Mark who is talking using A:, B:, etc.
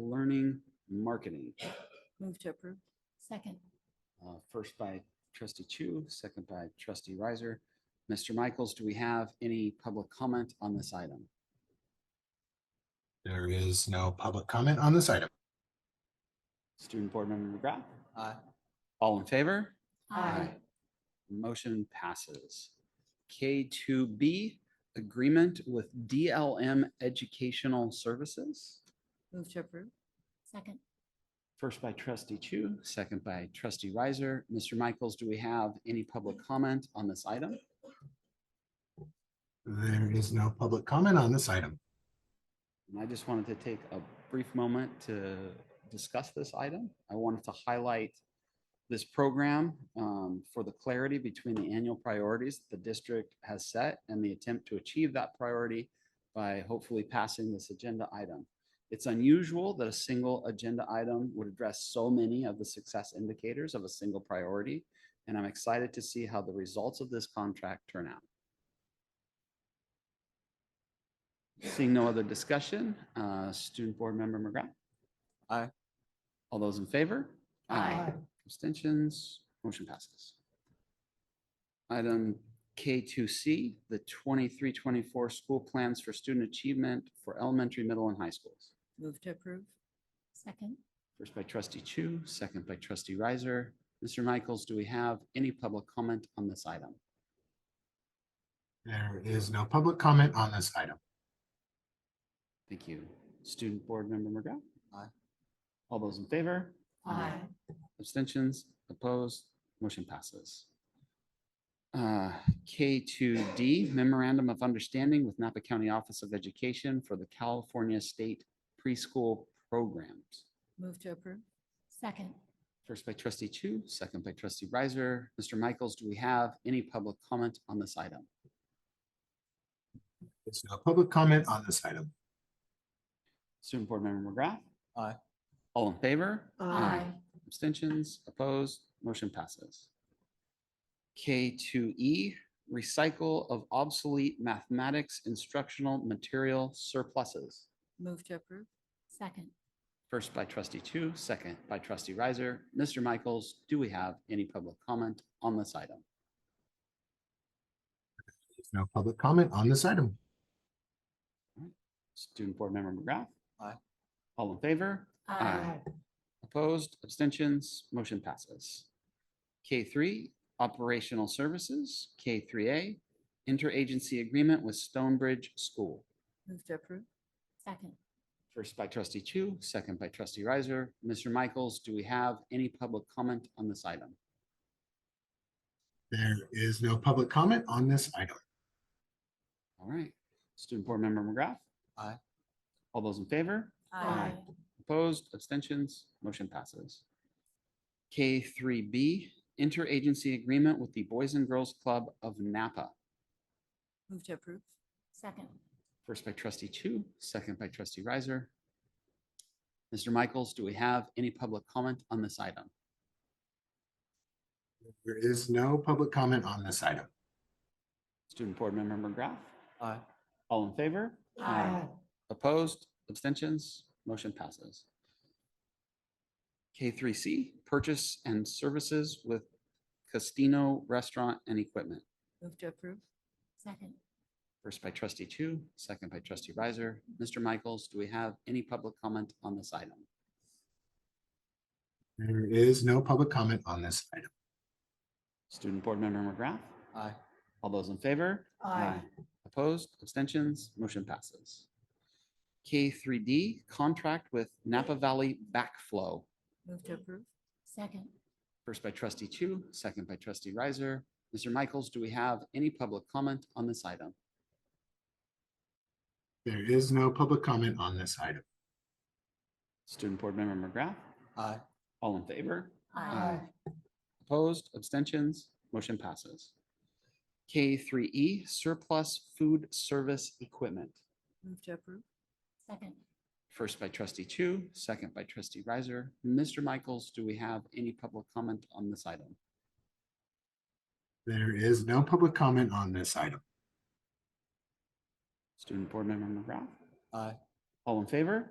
A: learning marketing.
B: Move to approve.
C: Second.
A: Uh, First by trustee Chu, second by trustee Riser. Mr. Michaels, do we have any public comment on this item?
D: There is no public comment on this item.
A: Student Board Member McGrath? Aye. All in favor?
C: Aye.
A: Motion passes. K2B, agreement with DLM Educational Services.
B: Move to approve.
C: Second.
A: First by trustee Chu, second by trustee Riser. Mr. Michaels, do we have any public comment on this item?
D: There is no public comment on this item.
A: And I just wanted to take a brief moment to discuss this item. I wanted to highlight this program um, for the clarity between the annual priorities the district has set and the attempt to achieve that priority by hopefully passing this agenda item. It's unusual that a single agenda item would address so many of the success indicators of a single priority. And I'm excited to see how the results of this contract turn out. Seeing no other discussion, uh, student board member McGrath. Aye. All those in favor?
C: Aye.
A: Abstentions, motion passes. Item K two C, the 23-24 school plans for student achievement for elementary, middle and high schools.
B: Move to approve.
C: Second.
A: First by trustee Chu, second by trustee Riser. Mr. Michaels, do we have any public comment on this item?
D: There is no public comment on this item.
A: Thank you. Student board member McGrath. Aye. All those in favor? Abstentions, opposed, motion passes. Uh, K2D Memorandum of Understanding with Napa County Office of Education for the California State Preschool Programs.
B: Move to approve.
C: Second.
A: First by trustee Chu, second by trustee Riser. Mr. Michaels, do we have any public comment on this item?
D: There's no public comment on this item.
A: Student Board Member McGrath. Aye. All in favor? Abstentions, opposed, motion passes. K2E, recycle of obsolete mathematics instructional material surpluses.
B: Move to approve.
C: Second.
A: First by trustee Chu, second by trustee Riser. Mr. Michaels, do we have any public comment on this item?
D: There's no public comment on this item.
A: Student Board Member McGrath. Aye. All in favor?
C: Aye.
A: Opposed, abstentions, motion passes. K three, operational services, K three A, interagency agreement with Stonebridge School.
B: Move to approve.
C: Second.
A: First by trustee Chu, second by trustee Riser. Mr. Michaels, do we have any public comment on this item?
D: There is no public comment on this item.
A: All right, student board member McGrath. Aye. All those in favor? Aye. Opposed, abstentions, motion passes. K three B, interagency agreement with the Boys and Girls Club of Napa.
B: Move to approve.
C: Second.
A: First by trustee Chu, second by trustee Riser. Mr. Michaels, do we have any public comment on this item?
D: There is no public comment on this item.
A: Student Board Member McGrath. Aye. All in favor?
C: Aye.
A: Opposed? Abstentions? Motion passes. K3C, purchase and services with Costino Restaurant and Equipment.
B: Move to approve.
C: Second.
A: First by trustee Chu, second by trustee Riser. Mr. Michaels, do we have any public comment on this item?
D: There is no public comment on this item.
A: Student Board Member McGrath. Aye. All those in favor?
C: Aye.
A: Opposed, abstentions, motion passes. K three D, contract with Napa Valley Backflow.
B: Move to approve.
C: Second.
A: First by trustee Chu, second by trustee Riser. Mr. Michaels, do we have any public comment on this item?
D: There is no public comment on this item.
A: Student Board Member McGrath. Aye. All in favor?
C: Aye.
A: Opposed, abstentions, motion passes. K three E, surplus food service equipment.
B: Move to approve.
C: Second.
A: First by trustee Chu, second by trustee Riser. Mr. Michaels, do we have any public comment on this item?
D: There is no public comment on this item.
A: Student Board Member McGrath. Aye. All in favor?